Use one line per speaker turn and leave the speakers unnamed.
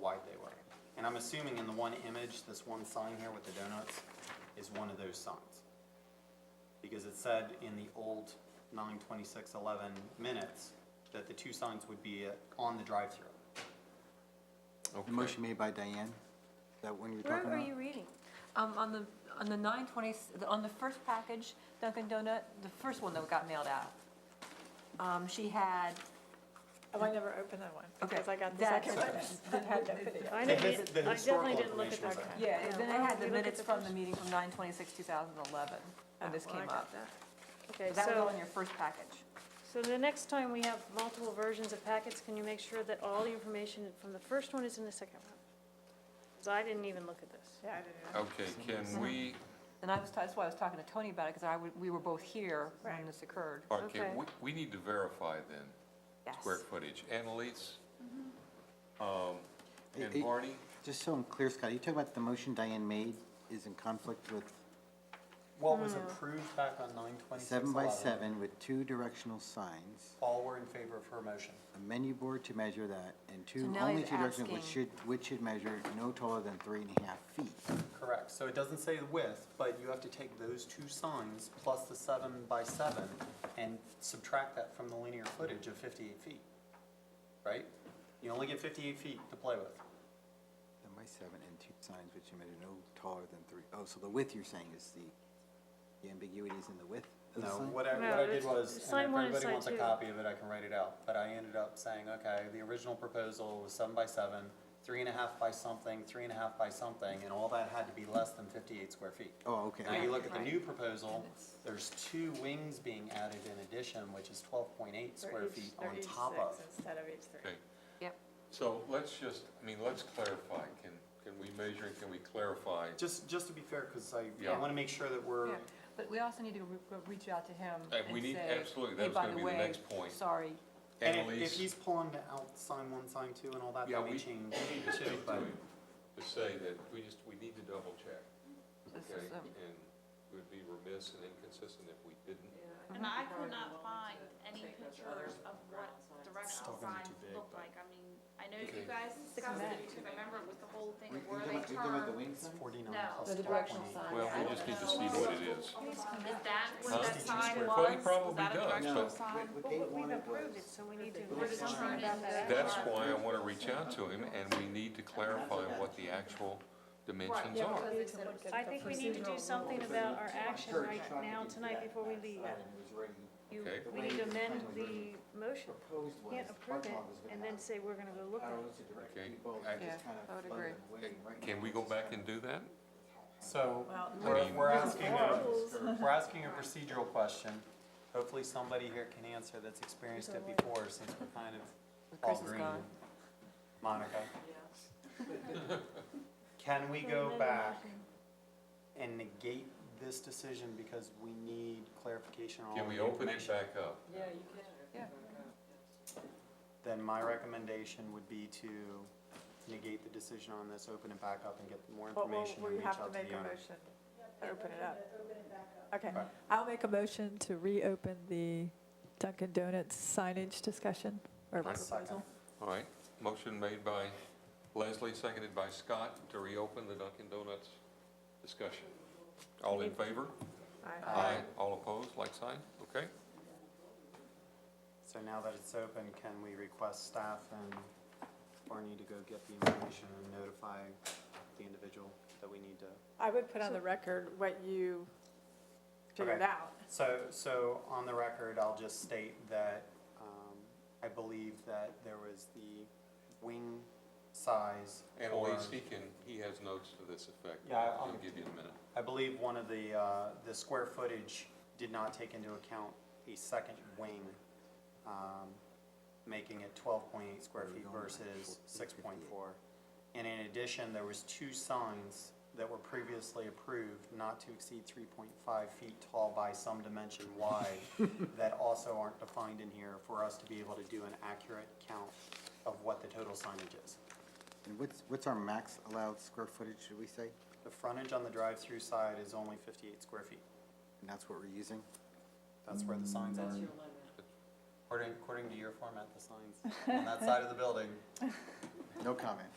wide they were. And I'm assuming in the one image, this one sign here with the donuts is one of those signs. Because it said in the old nine twenty-six eleven minutes that the two signs would be uh, on the drive-through.
The motion made by Diane, is that one you're
Where
talking
are
about?
you reading? Um, on the, on the nine twenty, on the first package Dunkin' Donut, the first one that got mailed out. Um, she had,
Oh, I never opened that one, because I got the
That's-
second one.
that had no video.
I
The
didn't,
his-
read-
the
I definitely
historical
didn't look at
information was
that
there.
one.
Yeah, and then I
Oh, you
had
look
the
at
minutes
the
from
first-
the meeting from nine twenty-six, two thousand and eleven, when this
Oh, well, I
came
got
up.
that.
So
Okay,
That was
so,
all in your first package.
so the next time we have multiple versions of packets, can you make sure that all the information from the first one is in the second one? Because I didn't even look at this.
Yeah, I didn't know.
Okay, can we,
And I was, that's why I was talking to Tony about it, because I, would- we were both here when
Right.
this occurred.
or can,
Okay.
we, we need to verify then,
Yes. Mm-hmm.
square footage, Annalise? Um,
Hey, hey.
and Barney,
Just so I'm clear, Scott, are you talking about the motion Diane made is in conflict with
What was approved back on nine twenty-six eleven?
seven by seven with two directional signs,
All were in favor of her motion.
a menu board to measure that, and two,
now
only
he's
two directional, which
asking-
should, which should measure no taller than three and a half feet.
Correct, so it doesn't say the width, but you have to take those two signs plus the seven by seven and subtract that from the linear footage of fifty-eight feet, right? You only get fifty-eight feet to play with.
Seven by seven and two signs which measure no taller than three, oh, so the width you're saying is the, the ambiguity is in the width of the
No,
sign?
what I,
No,
what I did
it's-
was,
sign
and if
one and
everybody
sign
wants a
two.
copy of it, I can write it out, but I ended up saying, okay, the original proposal was seven by seven, three and a half by something, three and a half by something, and all that had to be less than fifty-eight square feet.
Oh, okay,
Now you
okay.
look at the
Right.
new proposal,
And it's-
there's two wings being added in addition, which is twelve point eight
They're
square
each-
feet
they're
on
each
top
six
of.
Instead of each three.
okay,
Yep.
so let's just, I mean, let's clarify, can, can we measure, and can we clarify?
Just, just to be fair, because I, I
Yeah.
wanna make sure that we're,
Yeah, But we also need to re- re- reach out to him and
And
say.
we need- absolutely, that
"Hey,
was
by
gonna
the
be the
way,
next point."
Sorry,
and if- if,
Annalise?
he's pulling out sign one, sign two and all that,
Yeah,
then we
we-
change
we need to
too,
speak to
but.
him To say that, we just, we need to double check,
this
okay?
is, um,
And we would be remiss and inconsistent if we didn't.
And I could not find any pictures of what directional
Still gonna be
signs
too big,
looked
but-
like. I mean, I know you
Okay.
guys discussed it, you can remember with the whole thing of where they turn.
wings?
Forty-nine
No.
plus
the
twelve
directional
point eight.
sign.
Well, we just need to see what it is.
Is that
Huh?
where that sign
Well,
was?
he
Was
probably
that a
does, but-
directional sign?
Well, we've approved it, so we need to.
We're just trying to.
That's why I want to reach out to him, and we need to clarify what the actual dimensions
Right,
are.
because it's a-
I think we need to do something about our action right now, tonight, before we leave. You,
Okay.
we need to amend the motion. Can't approve it and then say we're gonna go look at it.
Okay, I-
Yeah, I would agree.
Can we go back and do that?
So,
Well,
we're,
mean-
we're asking, a- we're asking a procedural question. Hopefully somebody here can answer that's experienced it before, since we're kind of all
Chris is
green.
gone.
Monica? Can we go back and negate this decision because we need clarification on all
Can
the
we open it
information?
back up?
Then my recommendation would be to negate the decision on this, open it back up and get more
But we'll,
information and
we
reach
have to
out to
make
the
a
owner.
motion to open it up. Okay,
Right.
I'll make a motion to reopen the Dunkin' Donuts signage discussion or
Right.
proposal.
All right, motion made by Leslie, seconded by Scott, to reopen the Dunkin' Donuts discussion. All in favor?
Aye.
Aye. All opposed, like sign? Okay?
So now that it's open, can we request staff and Barney to go get the information and notify the individual that we need to?
I would put on the record what you figured
Okay.
out.
So, so on the record, I'll just state that, um, I believe that there was the wing size. or-
Annalise, he can, he has notes to this effect.
Yeah, I'll-
He'll give you a minute.
I believe one of the, uh, the square footage did not take into account a second wing, um, making it twelve point eight square feet versus six point four. And in addition, there was two signs that were previously approved not to exceed three point five feet tall by some dimension wide that also aren't defined in here for us to be able to do an accurate count of what the total signage is.
And what's, what's our max allowed square footage, should we say?
The frontage on the drive-through side is only fifty-eight square feet.
And that's what we're using?
That's where the signs are. According, according to your format, the signs on that side of the building
No comment.